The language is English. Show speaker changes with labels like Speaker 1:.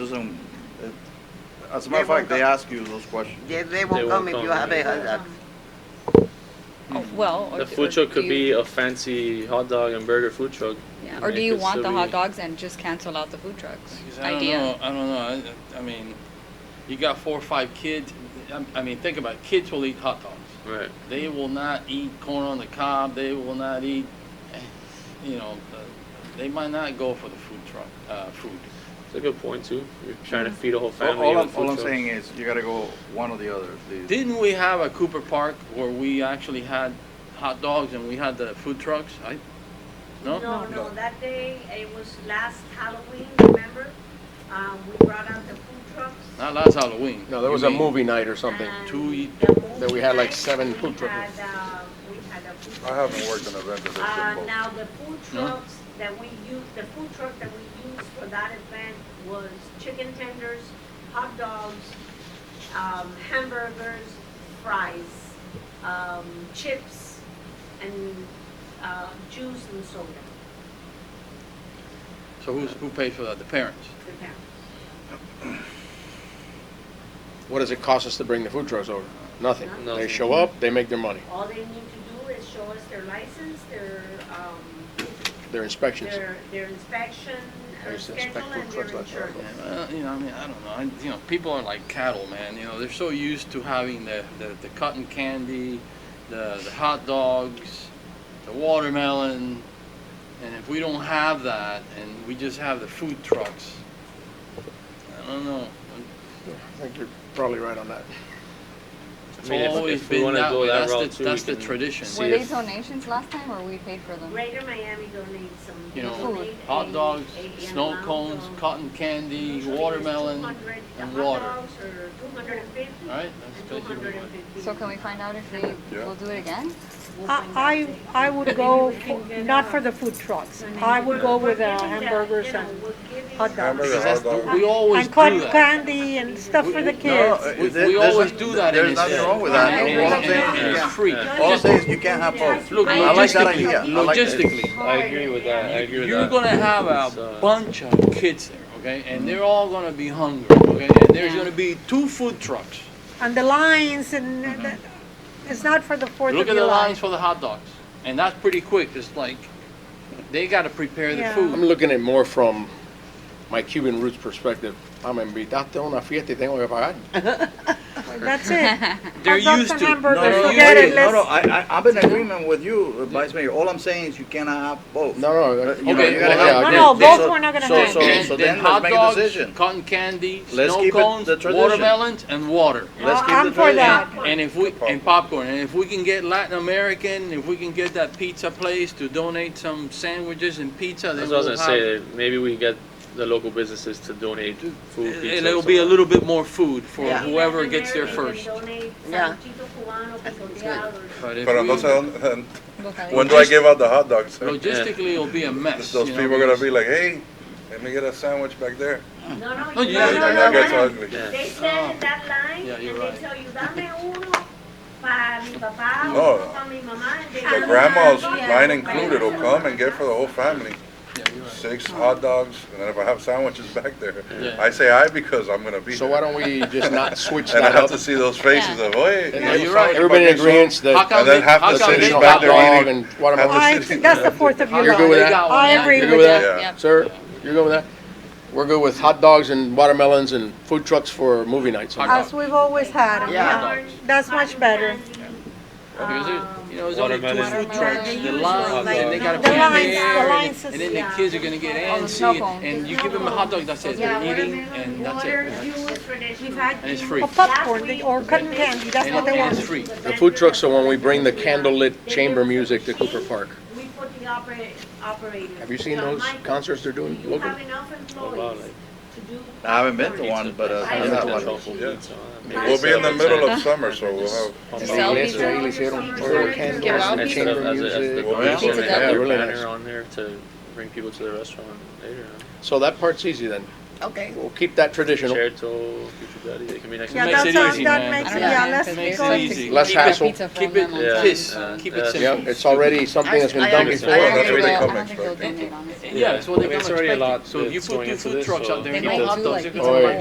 Speaker 1: doesn't, it- as a matter of fact, they ask you those questions.
Speaker 2: They, they
Speaker 3: They
Speaker 2: won't
Speaker 3: won't
Speaker 2: come if you
Speaker 3: come.
Speaker 2: have a hazard.
Speaker 4: Oh, Well, or
Speaker 3: The
Speaker 4: d-
Speaker 3: food
Speaker 4: or
Speaker 3: truck
Speaker 4: do
Speaker 3: could be
Speaker 4: you-
Speaker 3: a fancy hot dog and burger food truck.
Speaker 4: yeah,
Speaker 3: and
Speaker 4: Or
Speaker 3: it
Speaker 4: do you
Speaker 3: could
Speaker 4: want the
Speaker 3: still
Speaker 4: hot
Speaker 3: be-
Speaker 4: dogs and just cancel out the food trucks?
Speaker 5: Because I don't
Speaker 4: Idea.
Speaker 5: know, I don't know, I, I mean, you got four or five kids, I, I mean, think about it, kids will eat hot dogs.
Speaker 3: Right.
Speaker 5: They will not eat corn on the cob, they will not eat, eh, you know, uh, they might not go for the food truck, uh, food.
Speaker 3: It's a good point too. You're trying to feed a whole
Speaker 1: All
Speaker 3: family.
Speaker 1: all
Speaker 3: with
Speaker 1: I'm,
Speaker 3: food
Speaker 1: all I'm
Speaker 3: trucks.
Speaker 1: saying is, you gotta go one or the other. The-
Speaker 5: Didn't we have a Cooper Park where we actually had hot dogs and we had the food trucks? I, no?
Speaker 6: No, no, that day, it was last Halloween, remember? Um, we brought out the food trucks.
Speaker 5: Not last Halloween.
Speaker 7: No, there
Speaker 5: You
Speaker 7: was a
Speaker 5: mean-
Speaker 7: movie night or something.
Speaker 6: and
Speaker 5: Two e-
Speaker 6: the movie
Speaker 7: that we had, like,
Speaker 6: night,
Speaker 7: seven
Speaker 6: we
Speaker 7: food trucks.
Speaker 6: had, uh, We had a food
Speaker 1: I
Speaker 6: truck.
Speaker 1: haven't worked on a vendor that's
Speaker 6: Uh,
Speaker 1: involved.
Speaker 6: now, the food
Speaker 5: No?
Speaker 6: trucks that we used, the food truck that we used for that event was chicken tenders, hot dogs, um, hamburgers, fries, um, chips, and, uh, juice and soda,
Speaker 5: So who's, who pays for that? The parents?
Speaker 6: the parents.
Speaker 7: What does it cost us to bring the food trucks over? Nothing. They
Speaker 3: Nothing.
Speaker 7: show up, they make their money,
Speaker 6: All they need to do is show us their license, their, um,
Speaker 7: their inspections.
Speaker 6: their, their inspection uh,
Speaker 7: There's inspect
Speaker 6: schedule and
Speaker 7: food
Speaker 6: their
Speaker 7: trucks like that.
Speaker 6: insurance.
Speaker 5: Uh, you know, I mean, I don't know. I, you know, people are like cattle, man. You know, they're so used to having the, the, the cotton candy, the, the hot dogs, the watermelon. And if we don't have that and we just have the food trucks, I don't know.
Speaker 7: I think you're probably right on that.
Speaker 5: It's
Speaker 3: I mean, if-
Speaker 5: always
Speaker 3: if we
Speaker 5: been
Speaker 3: wanna
Speaker 5: that
Speaker 3: go
Speaker 5: way.
Speaker 3: that
Speaker 5: That's,
Speaker 3: route
Speaker 5: the,
Speaker 3: too,
Speaker 5: that's
Speaker 3: we
Speaker 5: the
Speaker 3: can
Speaker 5: tradition.
Speaker 3: see
Speaker 4: Were
Speaker 3: if-
Speaker 4: they donations last time or we paid for them?
Speaker 6: Greater Miami donates some.
Speaker 5: You
Speaker 6: they
Speaker 5: know,
Speaker 6: donate
Speaker 5: Hot
Speaker 6: a-
Speaker 5: dogs,
Speaker 6: a
Speaker 5: snow
Speaker 6: amount
Speaker 5: cones,
Speaker 6: of-
Speaker 5: cotton candy,
Speaker 6: usually it's
Speaker 5: watermelon,
Speaker 6: 200 the
Speaker 5: and
Speaker 6: hot
Speaker 5: water.
Speaker 6: dogs are 250
Speaker 5: All right,
Speaker 6: and
Speaker 5: that's basically what-
Speaker 6: 250.
Speaker 4: So can we find out if we
Speaker 1: Yeah.
Speaker 4: will do it again?
Speaker 6: We'll find out
Speaker 8: I,
Speaker 6: later.
Speaker 8: I would go, for- not for the food trucks. I would go with uh, hamburgers
Speaker 6: You know,
Speaker 8: and,
Speaker 6: we're giving
Speaker 8: hot dogs.
Speaker 5: Because that's the-
Speaker 8: dog.
Speaker 5: we always
Speaker 8: and
Speaker 5: do
Speaker 8: cotton
Speaker 5: that.
Speaker 8: candy and stuff for the
Speaker 1: No,
Speaker 8: kids.
Speaker 1: uh,
Speaker 5: We-
Speaker 1: there-
Speaker 5: we
Speaker 1: there's
Speaker 5: always
Speaker 1: no-
Speaker 5: do that in
Speaker 1: There's
Speaker 5: this
Speaker 1: nothing
Speaker 5: area.
Speaker 1: wrong with that.
Speaker 4: Yeah.
Speaker 1: All I'm saying,
Speaker 5: And
Speaker 1: you
Speaker 5: it's
Speaker 1: can't-
Speaker 5: free.
Speaker 1: all I'm saying is you can't have both.
Speaker 5: Look,
Speaker 1: I like that
Speaker 5: logistically-
Speaker 1: idea. I like that.
Speaker 5: Logistically,
Speaker 3: I agree with that. I agree with
Speaker 5: You're
Speaker 3: that.
Speaker 5: gonna have
Speaker 3: It's,
Speaker 5: a
Speaker 3: uh,
Speaker 5: bunch of kids there, okay, and they're all gonna be hungry, okay, and there's
Speaker 4: Yeah.
Speaker 5: gonna be two food trucks.
Speaker 8: And the lines and, that- it's not for the Fourth of
Speaker 5: Look at the
Speaker 8: July.
Speaker 5: lines for the hot dogs, and that's pretty quick, it's like, they gotta prepare the
Speaker 8: Yeah.
Speaker 5: food.
Speaker 7: I'm looking at more from my Cuban roots perspective. I'm invitaste a una fiesta y tengo que pagar.
Speaker 8: That's it.
Speaker 5: They're
Speaker 8: Hot dogs
Speaker 5: used
Speaker 8: and
Speaker 5: to.
Speaker 1: No,
Speaker 8: hamburgers,
Speaker 1: no, no,
Speaker 5: They're
Speaker 1: no,
Speaker 8: forget
Speaker 5: used to-
Speaker 8: it,
Speaker 1: no,
Speaker 8: let's-
Speaker 1: no, I, I, I'm in agreement with you, uh, Vice Mayor. All I'm saying is you cannot have both.
Speaker 7: No, no,
Speaker 1: Uh,
Speaker 7: that-
Speaker 1: you know,
Speaker 5: Okay,
Speaker 1: you gotta
Speaker 5: well,
Speaker 1: have-
Speaker 5: no,
Speaker 1: they-
Speaker 5: no,
Speaker 1: they-
Speaker 8: both
Speaker 1: so-
Speaker 8: we're not gonna
Speaker 1: so-
Speaker 8: have.
Speaker 1: So,
Speaker 5: Then-
Speaker 1: so
Speaker 5: then
Speaker 1: then
Speaker 5: hot
Speaker 1: let's make a
Speaker 5: dogs,
Speaker 1: decision.
Speaker 5: Cotton candy,
Speaker 1: Let's
Speaker 5: snow
Speaker 1: keep it
Speaker 5: cones,
Speaker 1: the tradition.
Speaker 5: watermelons, and water.
Speaker 1: Let's
Speaker 8: Well,
Speaker 1: keep
Speaker 8: I'm
Speaker 1: the
Speaker 8: for
Speaker 1: tradition.
Speaker 8: that.
Speaker 5: And if we, and popcorn, and if we can get Latin American, if we can get that pizza place to donate some sandwiches and pizza, then
Speaker 3: That's what I was
Speaker 5: we'll
Speaker 3: gonna
Speaker 5: have.
Speaker 3: say. Maybe we get the local businesses to donate food.
Speaker 5: And
Speaker 3: pizza or
Speaker 5: it'll be a
Speaker 3: something.
Speaker 5: little bit more food for
Speaker 2: Yeah.
Speaker 5: whoever gets there
Speaker 6: American
Speaker 5: first.
Speaker 6: donate
Speaker 2: Yeah.
Speaker 6: Sanchito Cubano, picoteado, or
Speaker 5: But if
Speaker 9: Pero
Speaker 5: we-
Speaker 9: entonces,
Speaker 1: Um,
Speaker 9: ¿dónde-
Speaker 4: Look at it.
Speaker 9: when do I give out the hot dogs? sir?
Speaker 5: Logistically, it'll be a mess.
Speaker 9: Those
Speaker 5: you know,
Speaker 9: people are gonna
Speaker 5: because-
Speaker 9: be like, hey, let me get a sandwich back there.
Speaker 6: No, no,
Speaker 5: No,
Speaker 6: you
Speaker 5: you-
Speaker 6: no,
Speaker 9: That-
Speaker 6: no,
Speaker 9: That
Speaker 6: no,
Speaker 9: gets
Speaker 6: no.
Speaker 9: ugly.
Speaker 6: They stand in that line
Speaker 5: Oh. Yeah,
Speaker 6: and
Speaker 5: you're
Speaker 6: they
Speaker 5: right.
Speaker 6: tell you, dame uno para mi papá,
Speaker 9: Oh.
Speaker 6: uno para mi mamá. and they-
Speaker 1: uh,
Speaker 6: "Oh,
Speaker 9: The grandmas,
Speaker 6: Yeah.
Speaker 9: mine included,
Speaker 1: oh,
Speaker 9: will come and get for the whole family. Six hot dogs, and then if I have sandwiches back there,
Speaker 5: Yeah.
Speaker 9: I say I because I'm gonna be
Speaker 7: So
Speaker 9: there.
Speaker 7: why don't we just not switch
Speaker 9: And I
Speaker 7: that
Speaker 9: have
Speaker 7: up?
Speaker 9: to see those faces of,
Speaker 5: Yeah,
Speaker 9: hey.
Speaker 5: you're right.
Speaker 7: Everybody in agreement
Speaker 5: How
Speaker 7: that
Speaker 5: come
Speaker 9: And then
Speaker 5: they-
Speaker 9: half
Speaker 5: how
Speaker 9: the
Speaker 5: come
Speaker 7: there's
Speaker 9: city's
Speaker 5: they-
Speaker 7: no
Speaker 9: back
Speaker 7: hot
Speaker 9: there
Speaker 7: dog
Speaker 9: eating.
Speaker 7: and watermelon.
Speaker 8: I, that's the Fourth of
Speaker 5: How
Speaker 8: July.
Speaker 7: You're good with
Speaker 5: they
Speaker 7: that?
Speaker 5: got
Speaker 8: I
Speaker 5: one.
Speaker 8: agree
Speaker 7: You're
Speaker 8: with
Speaker 7: good with
Speaker 8: that.
Speaker 9: Yeah.
Speaker 4: Yep.
Speaker 7: Sir, you're good with that? We're good with hot dogs and watermelons and food trucks for movie nights.
Speaker 5: Hot
Speaker 8: As we've always had 'em,
Speaker 2: Yeah.
Speaker 8: yeah. That's much better.
Speaker 5: Because
Speaker 6: um,
Speaker 5: there's, you know, there's only two
Speaker 3: Watermelon.
Speaker 5: food trucks, the
Speaker 6: Watermelon.
Speaker 5: lines, and they gotta
Speaker 8: The
Speaker 5: put in
Speaker 8: lines, the
Speaker 5: there,
Speaker 8: lines
Speaker 5: and
Speaker 8: is-
Speaker 5: then the kids are gonna get
Speaker 4: Oh, the snow
Speaker 5: antsy,
Speaker 4: cone.
Speaker 5: and you give them a hot dog, that's it,
Speaker 6: Yeah,
Speaker 5: they're eating,
Speaker 6: watermelon,
Speaker 5: and that's
Speaker 6: water,
Speaker 5: it.
Speaker 6: juice, traditional.
Speaker 5: And it's free.
Speaker 8: Or popcorn they- or cotton candy, that's
Speaker 5: And
Speaker 8: what they
Speaker 5: it-
Speaker 8: want.
Speaker 5: it's free.
Speaker 7: The food trucks are when we bring the candlelit chamber music to Cooper Park.
Speaker 6: We put the opera- operator.
Speaker 7: Have you seen
Speaker 6: Now,
Speaker 7: those
Speaker 6: Michael,
Speaker 7: concerts they're doing
Speaker 6: Do you
Speaker 7: locally?
Speaker 6: have enough
Speaker 3: wow,
Speaker 6: employees
Speaker 3: like-
Speaker 6: to do?
Speaker 1: I haven't been to one, but uh,
Speaker 3: I
Speaker 1: I
Speaker 3: haven't
Speaker 1: have
Speaker 3: done
Speaker 1: one.
Speaker 3: truffle
Speaker 9: Yeah.
Speaker 3: pizza. uh, Maybe
Speaker 9: We'll be in the
Speaker 3: it's-
Speaker 9: middle of summer, so we'll have.
Speaker 4: To
Speaker 7: They
Speaker 4: sell
Speaker 7: list-
Speaker 4: these
Speaker 7: they
Speaker 4: are-
Speaker 7: hicieron
Speaker 6: Give
Speaker 7: todo,
Speaker 6: out
Speaker 7: candles,
Speaker 4: pizza.
Speaker 7: chamber
Speaker 3: Instead of as a, as the
Speaker 7: music.
Speaker 9: Well,
Speaker 3: yeah.
Speaker 9: yeah.
Speaker 3: have their
Speaker 7: Really
Speaker 3: banner
Speaker 7: nice.
Speaker 3: on there to bring people to the restaurant later.
Speaker 7: So that part's easy then.
Speaker 4: Okay.
Speaker 7: We'll keep that traditional.
Speaker 3: Chair to future daddy, they can be next.
Speaker 5: Yeah,
Speaker 8: Yeah,
Speaker 5: Makes
Speaker 8: that
Speaker 5: it
Speaker 8: sounds,
Speaker 5: easy,
Speaker 8: that
Speaker 5: man.
Speaker 8: makes,
Speaker 4: I don't
Speaker 8: it-
Speaker 4: know.
Speaker 8: yeah,
Speaker 5: It
Speaker 8: let's
Speaker 5: makes
Speaker 8: go.
Speaker 5: it
Speaker 8: and-
Speaker 5: easy.
Speaker 7: Less
Speaker 5: Keep it-
Speaker 7: hassle.
Speaker 5: Keep it, kiss,
Speaker 3: Yeah.
Speaker 5: keep
Speaker 3: Yeah.
Speaker 5: it
Speaker 7: Yeah,
Speaker 5: simple.
Speaker 7: it's already something that's been done before.
Speaker 9: I agree.
Speaker 7: Oh, That's-
Speaker 9: they come
Speaker 4: I don't think
Speaker 9: extra.
Speaker 4: they'll donate, honestly.
Speaker 5: Yeah, it's what
Speaker 3: I
Speaker 5: they
Speaker 3: mean,
Speaker 5: come
Speaker 3: it's already a
Speaker 5: expecting.
Speaker 3: lot
Speaker 5: So if you
Speaker 3: that's
Speaker 5: put
Speaker 3: going
Speaker 5: two
Speaker 3: into
Speaker 5: food
Speaker 3: this,
Speaker 5: trucks
Speaker 3: so-
Speaker 5: out there
Speaker 4: They
Speaker 5: and
Speaker 4: might
Speaker 5: hot
Speaker 4: do
Speaker 5: dogs,
Speaker 4: like
Speaker 5: they're
Speaker 4: pizza
Speaker 5: gonna
Speaker 7: Oh,
Speaker 5: buy
Speaker 7: yeah.